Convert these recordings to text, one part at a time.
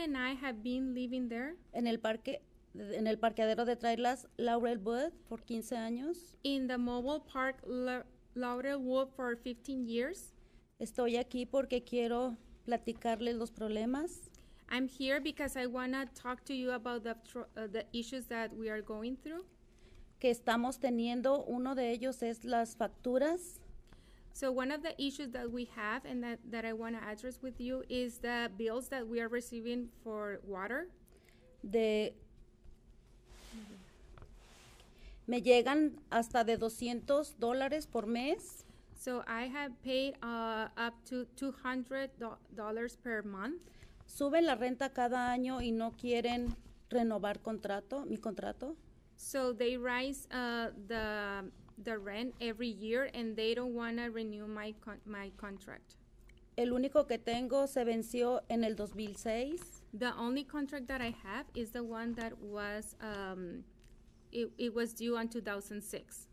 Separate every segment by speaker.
Speaker 1: and I have been living there
Speaker 2: en el parque en el parqueadero de trailers Laurel Wood por 15 años.
Speaker 1: in the mobile park La- Laurelwood for 15 years.
Speaker 2: Estoy aquí porque quiero platicarles los problemas
Speaker 1: I'm here because I want to talk to you about the, tr- uh, the issues that we are going through.
Speaker 2: que estamos teniendo. Uno de ellos es las facturas.
Speaker 1: So, one of the issues that we have and that, that I want to address with you is the bills that we are receiving for water.
Speaker 2: de me llegan hasta de 200 dólares por mes
Speaker 1: So, I have paid uh, up to $200 per month.
Speaker 2: suben la renta cada año y no quieren renovar contrato mi contrato
Speaker 1: So, they rise uh, the, the rent every year and they don't want to renew my, con- my contract.
Speaker 2: el único que tengo se venció en el 2006
Speaker 1: The only contract that I have is the one that was um, it, it was due on 2006.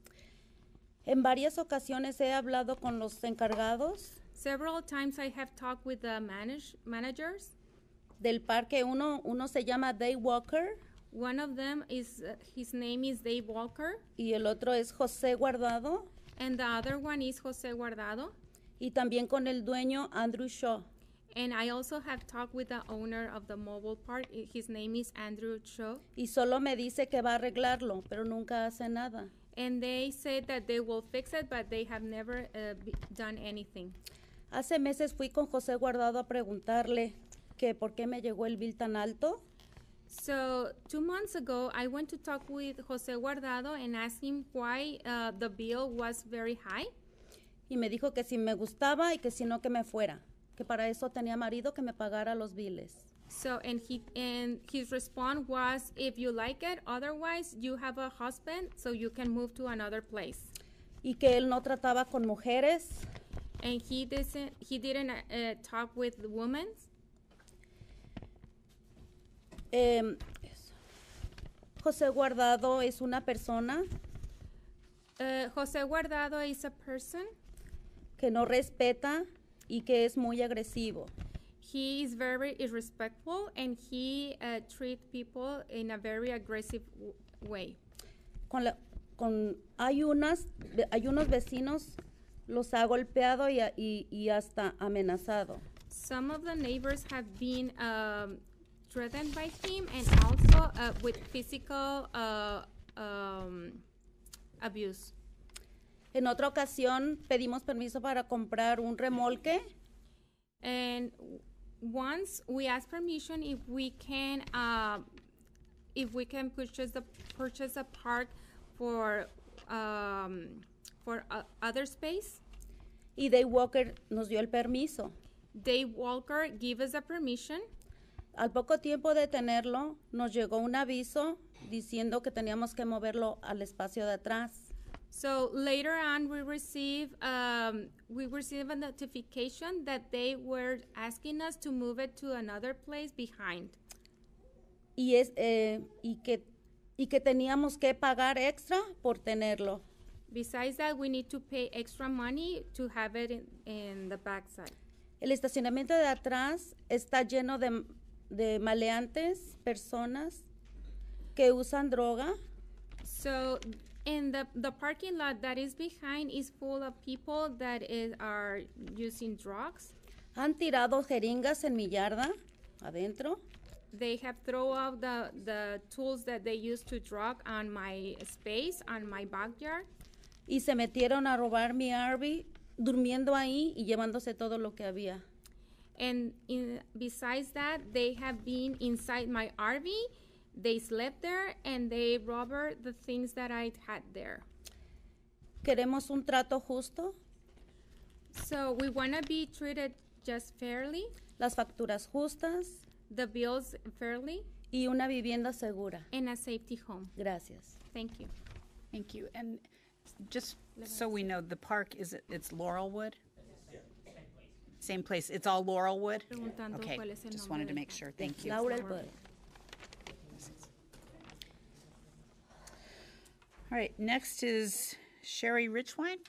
Speaker 2: en varias ocasiones he hablado con los encargados
Speaker 1: Several times I have talked with the manage, managers.
Speaker 2: del parque uno uno se llama Day Walker
Speaker 1: One of them is uh, his name is Dave Walker,
Speaker 2: y el otro es José Guardado
Speaker 1: and the other one is Jose Guardado.
Speaker 2: y también con el dueño Andrew Shaw
Speaker 1: And I also have talked with the owner of the mobile park. I- His name is Andrew Cho,
Speaker 2: y solo me dice que va a arreglarlo, pero nunca hace nada.
Speaker 1: and they said that they will fix it, but they have never uh, b- done anything.
Speaker 2: Hace meses fui con José Guardado a preguntarle que por qué me llegó el bill tan alto
Speaker 1: So two months ago, I went to talk with Jose Guardado and asked him why uh, the bill was very high.
Speaker 2: y me dijo que si me gustaba y que si no que me fuera, que para eso tenía marido que me pagara los biles.
Speaker 1: So and he and his response was, if you like it, otherwise you have a husband, so you can move to another place.
Speaker 2: Y que él no trataba con mujeres,
Speaker 1: And he doesn't. He didn't uh, uh, talk with the women.
Speaker 2: em, José Guardado es una persona
Speaker 1: Uh, Jose Guardado is a person.
Speaker 2: que no respeta y que es muy agresivo.
Speaker 1: He is very irrespectful and he uh, treats people in a very aggressive w- way.
Speaker 2: con la- con- hay unas hay unos vecinos los ha golpeado y, a- y- y hasta amenazado
Speaker 1: Some of the neighbors have been um, threatened by him and also uh, with physical uh, um, abuse.
Speaker 2: en otra ocasión pedimos permiso para comprar un remolque
Speaker 1: And w- once we asked permission if we can uh, if we can purchase the purchase a park for um, for uh, other space.
Speaker 2: y Day Walker nos dio el permiso
Speaker 1: Dave Walker gave us a permission.
Speaker 2: al poco tiempo de tenerlo nos llegó un aviso diciendo que teníamos que moverlo al espacio de atrás
Speaker 1: So later on, we receive um, we receive a notification that they were asking us to move it to another place behind,
Speaker 2: y es eh, y que y que teníamos que pagar extra por tenerlo
Speaker 1: besides that, we need to pay extra money to have it in, in the backside.
Speaker 2: El estacionamiento de atrás está lleno de, de maleantes, personas que usan droga
Speaker 1: So, in the the parking lot that is behind is full of people that is, are using drugs.
Speaker 2: han tirado jeringas en mi yarda adentro
Speaker 1: They have throw out the the tools that they use to drug on my space on my backyard.
Speaker 2: y se metieron a robar mi Arby durmiendo ahí y llevándose todo lo que había.
Speaker 1: And in, besides that, they have been inside my RV. They slept there and they robbed the things that I had there.
Speaker 2: Queremos un trato justo,
Speaker 1: So we want to be treated just fairly,
Speaker 2: las facturas justas
Speaker 1: the bills fairly,
Speaker 2: y una vivienda segura.
Speaker 1: and a safety home.
Speaker 2: Gracias.
Speaker 1: Thank you.
Speaker 3: Thank you. And just so we know, the park is, it's Laurelwood? Same place. It's all Laurelwood?
Speaker 1: Preguntando
Speaker 3: Okay,
Speaker 1: cuál es el
Speaker 3: just
Speaker 1: nombre
Speaker 3: wanted to
Speaker 1: del
Speaker 3: make
Speaker 1: parque.
Speaker 3: sure. Thank you.
Speaker 2: Laura Alvarez.
Speaker 3: All right, next is Sherry Richwine.